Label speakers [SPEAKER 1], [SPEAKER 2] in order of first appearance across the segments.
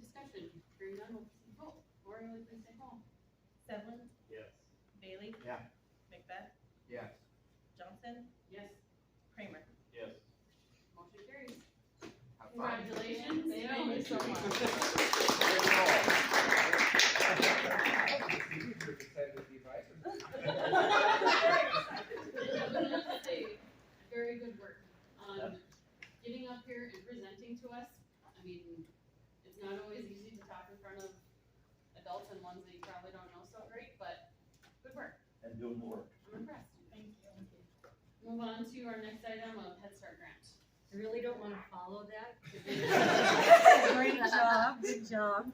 [SPEAKER 1] discussion? Hearing none, will please vote. Lori, will you please take roll?
[SPEAKER 2] Sedlin,
[SPEAKER 3] Yes.
[SPEAKER 2] Bailey.
[SPEAKER 4] Yeah.
[SPEAKER 2] Macbeth,
[SPEAKER 4] Yes.
[SPEAKER 2] Johnson,
[SPEAKER 1] Yes,
[SPEAKER 2] Kramer.
[SPEAKER 3] Yes.
[SPEAKER 1] motion carries.
[SPEAKER 4] Have fun.
[SPEAKER 1] Congratulations.
[SPEAKER 5] Thank you so much.
[SPEAKER 1] Very good work on getting up here and presenting to us. I mean, it's not always easy to talk in front of adults and ones that you probably don't know so great, but good work.
[SPEAKER 6] and doing more.
[SPEAKER 1] I'm impressed.
[SPEAKER 2] Thank you.
[SPEAKER 1] Move on to our next item of Head Start grant.
[SPEAKER 5] I really don't wanna follow that.
[SPEAKER 7] Great job, good job.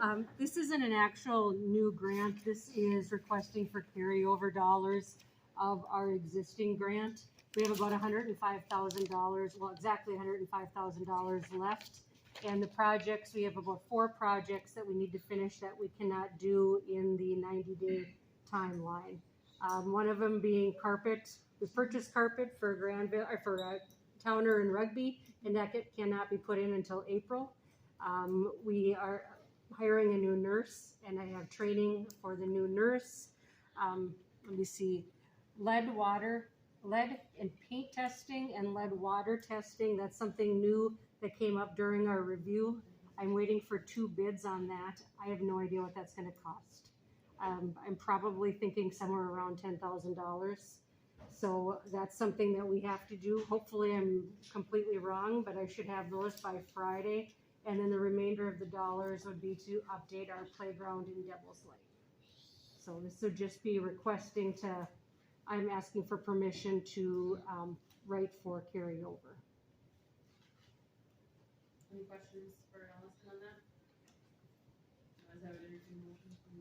[SPEAKER 7] Um, this isn't an actual new grant, this is requesting for carryover dollars of our existing grant. We have about hundred and five thousand dollars, well, exactly hundred and five thousand dollars left. And the projects, we have about four projects that we need to finish that we cannot do in the ninety-day timeline. Um, one of them being carpet, we purchased carpet for Granville, or for, uh, Towner and Rugby and that get- cannot be put in until April. Um, we are hiring a new nurse, and I have training for the new nurse. Um, let me see, lead water, lead and paint testing and lead water testing, that's something new that came up during our review. I'm waiting for two bids on that, I have no idea what that's gonna cost. Um, I'm probably thinking somewhere around ten thousand dollars. So that's something that we have to do. Hopefully, I'm completely wrong, but I should have those by Friday. And then the remainder of the dollars would be to update our playground in Devil's Lake. So this would just be requesting to, I'm asking for permission to, um, write for carryover.
[SPEAKER 1] Any questions for Allison on that? Otherwise, I would entertain a motion from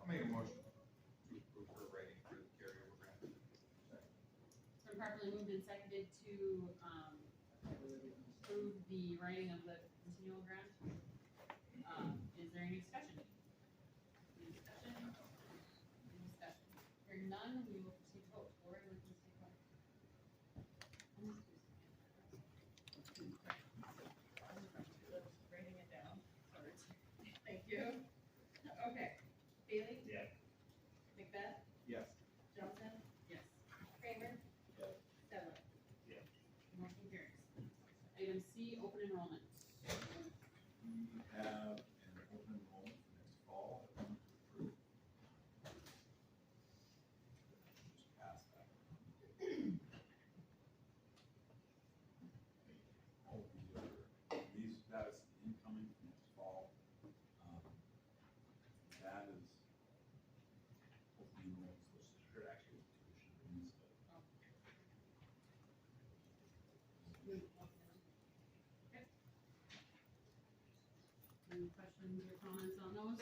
[SPEAKER 4] I'll make a motion to approve her writing for the carryover grant.
[SPEAKER 1] It's been properly moved and seconded to, um, approve the writing of the continual grant. Um, is there any discussion? Any discussion? Any discussion? Hearing none, we will proceed to vote. Lori, would you please take
[SPEAKER 2] Writing it down.
[SPEAKER 1] roll? Thank you. Okay. Bailey?
[SPEAKER 3] Yeah.
[SPEAKER 1] Macbeth?
[SPEAKER 4] Yes.
[SPEAKER 1] Johnson? Yes. Kramer?
[SPEAKER 3] Yes.
[SPEAKER 1] Sedlin?
[SPEAKER 3] Yes.
[SPEAKER 1] Motion carries. Item C, open enrollment.
[SPEAKER 4] We have an open enrollment for next fall. that we need to approve. Just pass that. All of these are, these, that is incoming for next fall. Um, That is open enrollment, which should actually be tuition fees, but
[SPEAKER 1] Any questions or comments on those?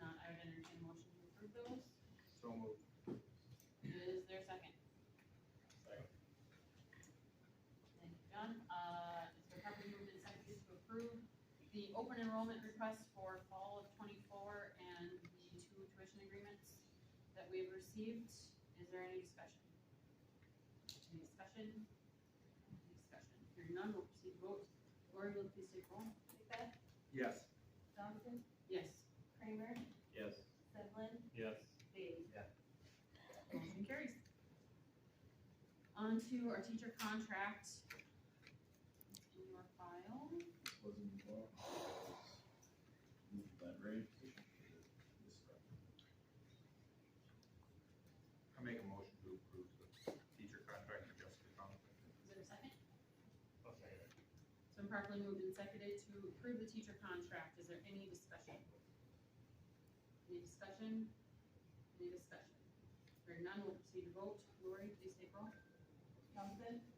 [SPEAKER 1] Not, I would entertain a motion to approve those.
[SPEAKER 4] so moved.
[SPEAKER 1] Is there a second?
[SPEAKER 3] Second.
[SPEAKER 1] Thank you, John. Uh, it's been properly moved and seconded to approve the open enrollment request for fall of twenty-four and the two tuition agreements that we've received. Is there any discussion? Any discussion? Any discussion? Hearing none, we'll proceed to vote. Lori, will you please take roll?
[SPEAKER 2] Macbeth,
[SPEAKER 4] Yes.
[SPEAKER 2] Johnson,
[SPEAKER 1] Yes.
[SPEAKER 2] Kramer,
[SPEAKER 3] Yes.
[SPEAKER 2] Sedlin,
[SPEAKER 3] Yes.
[SPEAKER 2] Bailey.
[SPEAKER 1] Motion carries. On to our teacher contract. In your file.
[SPEAKER 4] was involved. Move that rate. I make a motion to approve the teacher contract for Jessica Thompson.
[SPEAKER 1] Is there a second?
[SPEAKER 3] I'll second it.
[SPEAKER 1] It's been properly moved and seconded to approve the teacher contract. Is there any discussion? Any discussion? Any discussion? Hearing none, we'll proceed to vote. Lori, please take roll.
[SPEAKER 2] Johnson,